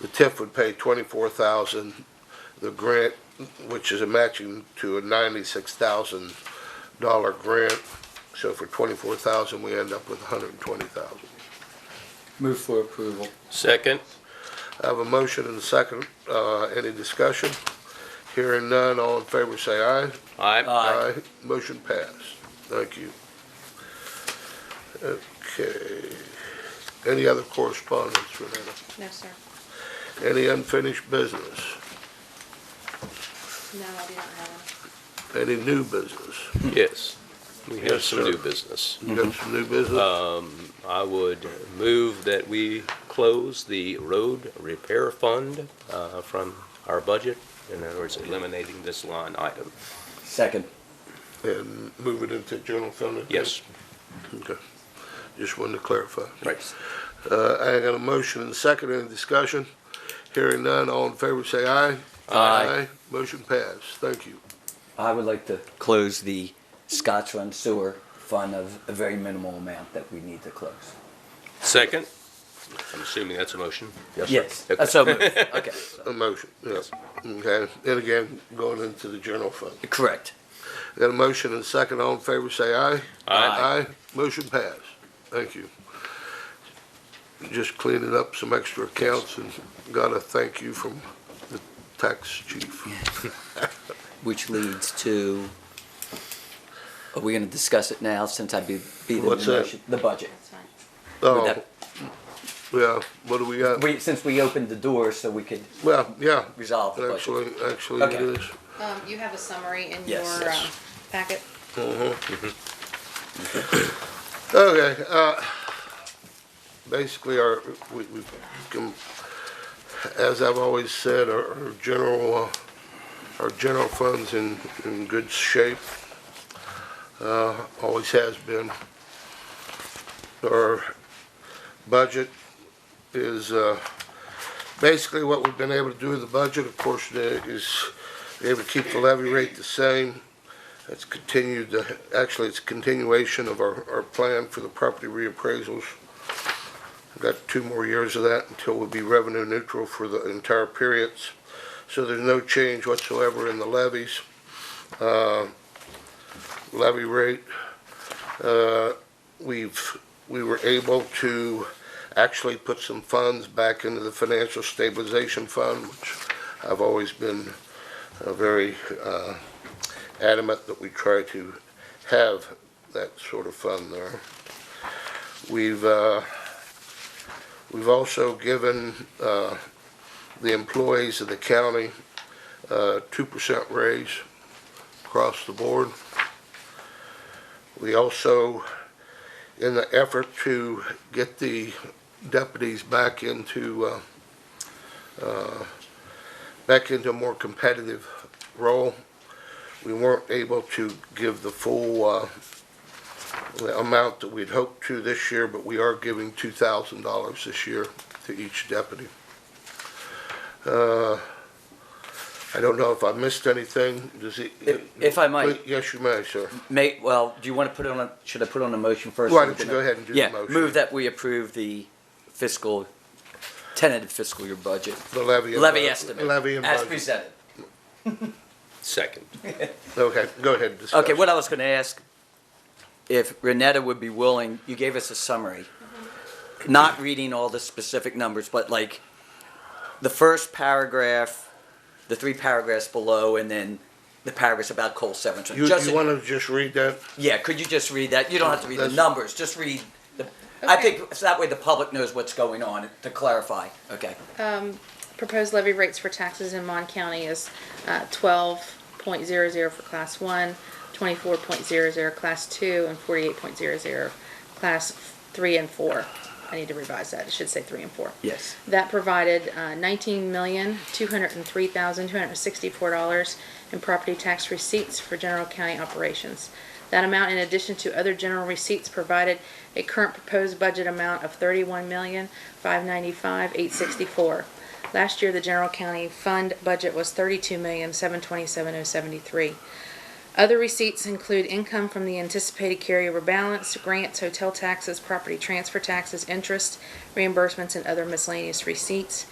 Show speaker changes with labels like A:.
A: The TIF would pay twenty-four thousand, the grant, which is a matching to a ninety-six thousand dollar grant. So for twenty-four thousand, we end up with a hundred and twenty thousand.
B: Move for approval.
C: Second.
A: I have a motion and a second. Uh, any discussion? Hearing none, all in favor say aye.
C: Aye.
B: Aye.
A: Motion passed. Thank you. Okay. Any other correspondence, Renetta?
D: No, sir.
A: Any unfinished business?
D: No, I do not have
A: Any new business?
C: Yes. We have
A: Yes,
C: some
A: sir.
C: new business.
A: You got some new business?
C: Um, I would move that we close the road repair fund, uh, from our budget. In other words, eliminating this line item.
B: Second.
A: And move it into general fund?
C: Yes.
A: Okay. Just wanted to clarify.
C: Right.
A: Uh, I got a motion and second. Any discussion? Hearing none, all in favor say aye.
B: Aye.
A: Motion passed. Thank you.
B: I would like to close the Scotch Run Sewer Fund of a very minimal amount that we need to close.
C: Second. I'm assuming that's a motion.
B: Yes.
C: Okay.
B: Uh, So moved. Okay. so-
A: A motion, yes. Okay, and again, going into the general fund.
B: Correct.
A: Got a motion and second, all in favor, say aye.
C: Aye.
A: Motion passed. Thank you. Just cleaning up some extra accounts and got a thank you from the tax chief.
B: Which leads to, are we going to discuss it now since I be, be the
A: What's that?
B: motion- The budget.
D: it. That's fine.
A: Oh,
B: Would
A: yeah, what do we
B: that-
A: got?
B: We, since we opened the door so we could
A: Well, yeah,
B: resolve the budget.
A: actually, actually it
B: Okay.
A: is.
D: Um, you have a summary in your,
B: Yes, yes.
D: um, packet.
A: Okay, uh, basically, our, we, we, com- as I've always said, our, our general, uh, our general fund's in, in good shape. Uh, always has been. Our budget is, uh, basically what we've been able to do with the budget, of course, there is, be able to keep the levy rate the same. It's continued, uh, actually, it's a continuation of our, our plan for the property reappraisals. We've Got two more years of that until we'll be revenue neutral for the entire periods. So there's no change whatsoever in the levies. Uh, Levy rate, uh, we've, we were able to actually put some funds back into the financial stabilization fund, which I've always been uh, very uh, adamant that we try to have that sort of fund there. We've, uh, we've also given, uh, the employees of the county, uh, two percent raise across the board. We also, in the effort to get the deputies back into, uh, uh, back into a more competitive role, we weren't able to give the full uh, the amount that we'd hoped to this year, but we are giving $2,000 this year to each deputy. Uh, I don't know if I missed anything. Does it?
B: If- if I might.
A: Yes, you may, sir.
B: May, well, do you want to put it on, a should I put on a motion first?
A: Why don't you go ahead and do the
B: Yeah,
A: motion.
B: move that we approve the fiscal, tentative fiscal year budget,
A: The levy. and
B: levy
A: budget.
B: estimate.
A: Levy and
B: As
A: budget.
B: presented.
C: Second.
A: Okay, go ahead. and discuss.
B: Okay, what I was gonna ask, if Renetta would be willing, you gave us a summary. Not reading all the specific numbers, but like, the first paragraph, the three paragraphs below, and then the paragraphs about coal severance.
A: You,
B: Just-
A: you want to just read that?
B: Yeah, could you just read that? You don't have to read the
A: That's-
B: numbers, just read the, I
D: Okay.
B: think, so that way the public knows what's going on, to clarify, okay?
D: Proposed levy rates for taxes in Mon County is, uh, twelve point zero zero for class one, twenty-four point zero zero class two, and forty-eight point zero zero class three and four. I need to revise that. It should say three and four.
B: Yes.
D: That provided uh, nineteen million, two hundred and three thousand, two hundred and sixty-four dollars in property tax receipts for general county operations. That amount, in addition to other general receipts, provided a current proposed budget amount of thirty-one million, five ninety-five, eight sixty-four. Last year, the general county fund budget was thirty-two million, seven twenty-seven, oh seventy-three. Other receipts include income from the anticipated carryover balance, grants, hotel taxes, property transfer taxes, interest, reimbursements, and other miscellaneous receipts.